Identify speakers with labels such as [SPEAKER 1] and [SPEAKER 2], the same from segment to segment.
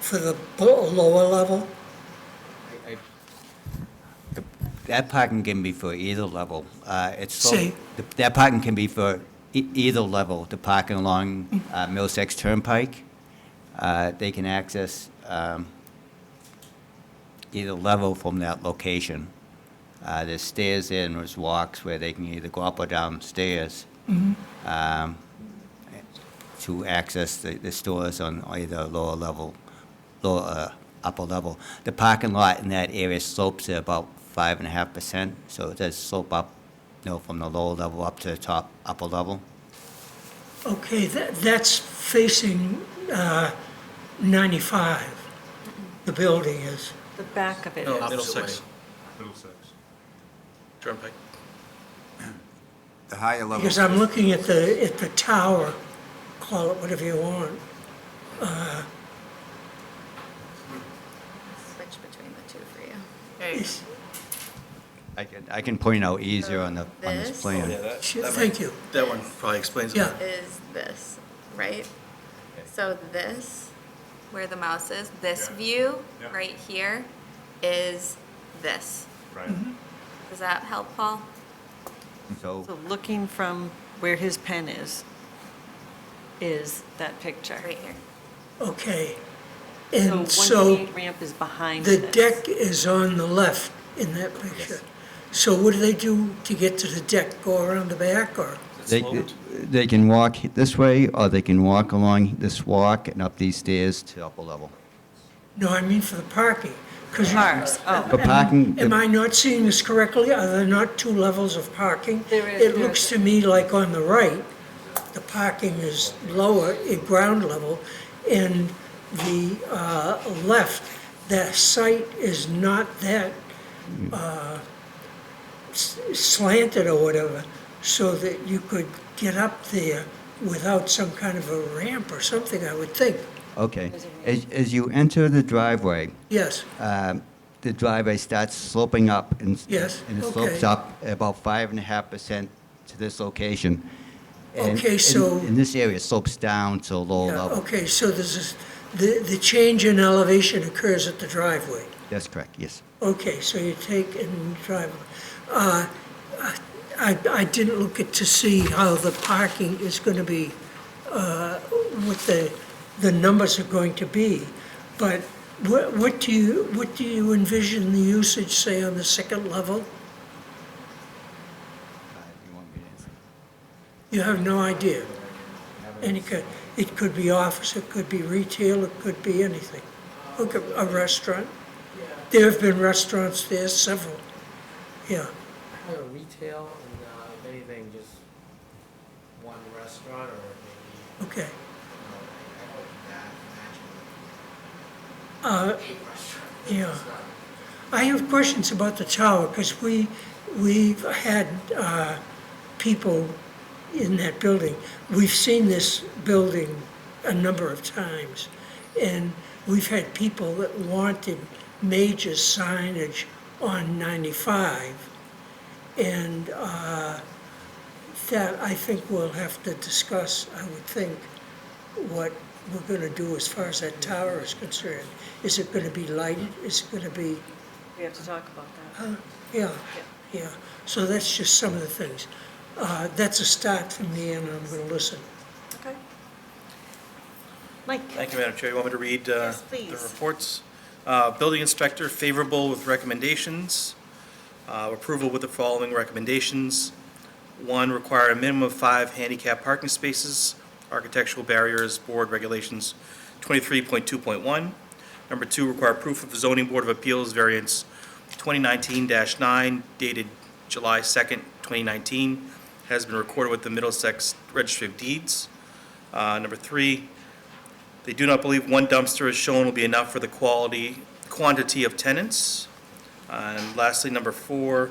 [SPEAKER 1] for the bo- lower level?
[SPEAKER 2] That parking can be for either level. Uh, It's so-
[SPEAKER 1] Say.
[SPEAKER 2] th- That parking can be for e- either level, the parking along uh, Middlesex Turnpike. Uh, They can access um, either level from that location. Uh, There's stairs there and there's walks where they can either go up or down stairs um, to access the the stores on either lower level, lower, uh, upper level. The parking lot in that area slopes at about five and a half percent, so it does slope up, you know, from the lower level up to the top, upper level.
[SPEAKER 1] Okay, that, that's facing uh, 95, the building is.
[SPEAKER 3] The back of it
[SPEAKER 4] No,
[SPEAKER 1] Oh.
[SPEAKER 3] is.
[SPEAKER 4] Middlesex,
[SPEAKER 5] Middlesex.
[SPEAKER 4] Turnpike.
[SPEAKER 6] The higher level.
[SPEAKER 1] Because I'm looking at the, at the tower, call it whatever you want.
[SPEAKER 7] Switch between the two for you.
[SPEAKER 1] It's-
[SPEAKER 2] I can, I can point out easier on the, on this
[SPEAKER 7] This?
[SPEAKER 2] plan.
[SPEAKER 4] that.
[SPEAKER 1] Sure, thank you.
[SPEAKER 4] That one probably explains it.
[SPEAKER 1] Yeah.
[SPEAKER 7] Is this, right? So this, where the mouse is, this
[SPEAKER 5] Yeah.
[SPEAKER 7] view,
[SPEAKER 5] Yeah.
[SPEAKER 7] right here, is this.
[SPEAKER 5] Right.
[SPEAKER 4] Mm-hmm.
[SPEAKER 7] Does that help, Paul?
[SPEAKER 2] So,
[SPEAKER 3] So looking from where his pen is, is that picture.
[SPEAKER 7] Right here.
[SPEAKER 1] Okay.
[SPEAKER 3] So
[SPEAKER 1] And so
[SPEAKER 3] 128 ramp is behind
[SPEAKER 1] the
[SPEAKER 3] this.
[SPEAKER 1] deck is on the left in that picture. So what do they do to get to the deck? Go around the back or?
[SPEAKER 2] they, they can walk this way, or they can walk along this walk and up these stairs to upper level.
[SPEAKER 1] No, I mean for the parking. 'cause you-
[SPEAKER 3] Parks, oh.
[SPEAKER 2] For parking,
[SPEAKER 1] Am
[SPEAKER 2] the-
[SPEAKER 1] I not seeing this correctly? Are there not two levels of parking?
[SPEAKER 3] There is,
[SPEAKER 1] It
[SPEAKER 3] there
[SPEAKER 1] looks
[SPEAKER 3] is.
[SPEAKER 1] to me like on the right, the parking is lower at ground level, and the uh, left, that site is not that uh, s- slanted or whatever, so that you could get up there without some kind of a ramp or something, I would think.
[SPEAKER 2] okay. As, as you enter the driveway,
[SPEAKER 1] Yes,
[SPEAKER 2] um, the driveway starts sloping up and.
[SPEAKER 1] Yes,
[SPEAKER 2] And it
[SPEAKER 1] okay.
[SPEAKER 2] slopes up about five and a half percent to this location. And-
[SPEAKER 1] Okay,
[SPEAKER 2] and-
[SPEAKER 1] so-
[SPEAKER 2] And this area slopes down to a lower
[SPEAKER 1] Yeah,
[SPEAKER 2] level.
[SPEAKER 1] okay, so this is, the, the change in elevation occurs at the driveway.
[SPEAKER 2] That's correct, yes.
[SPEAKER 1] Okay, so you take and drive. Uh, I, I didn't look at to see how the parking is going to be, uh, what the, the numbers are going to be. But what, what do you, what do you envision the usage, say, on the second level? You have no idea. And it could, it could be office, it could be retail, it could be anything. Look, a a restaurant. There have been restaurants there, several. Yeah,
[SPEAKER 8] Kind of retail and, uh, if anything, just one restaurant or maybe,
[SPEAKER 1] okay.
[SPEAKER 8] you know, I hope that matches.
[SPEAKER 1] Uh, Yeah. I have questions about the tower, because we, we've had uh, people in that building. We've seen this building a number of times, and we've had people that wanted major signage on 95, and uh, that I think we'll have to discuss, I would think, what we're going to do as far as that tower is concerned. Is it going to be lighted? Is it going to be,
[SPEAKER 3] We have to talk about that.
[SPEAKER 1] yeah, yeah. So that's just some of the things. Uh, That's a start for me, and I'm going to listen.
[SPEAKER 3] Okay. Mike?
[SPEAKER 4] Thank you, Madam Chair. You want me to read uh,
[SPEAKER 3] Yes, please.
[SPEAKER 4] the reports? Uh, Building inspector favorable with recommendations. Uh, Approval with the following recommendations. One, require a minimum of five handicap parking spaces, architectural barriers, board regulations 23.2.1. Number two, require proof of zoning board of appeals variance 2019-9 dated July 2nd, 2019, has been recorded with the Middlesex Registry of Deeds. Uh, Number three, they do not believe one dumpster is shown will be enough for the quality, quantity of tenants. Uh, And lastly, number four,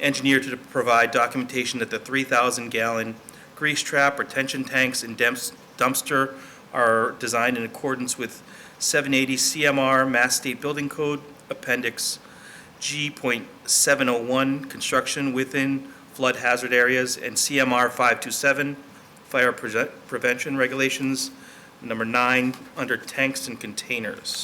[SPEAKER 4] engineer to provide documentation that the 3,000-gallon grease trap retention tanks and dumps- dumpster are designed in accordance with 780 CMR Mass State Building Code Appendix G.701, construction within flood hazard areas, and CMR 527, fire prevent- prevention regulations, number nine, under tanks and containers.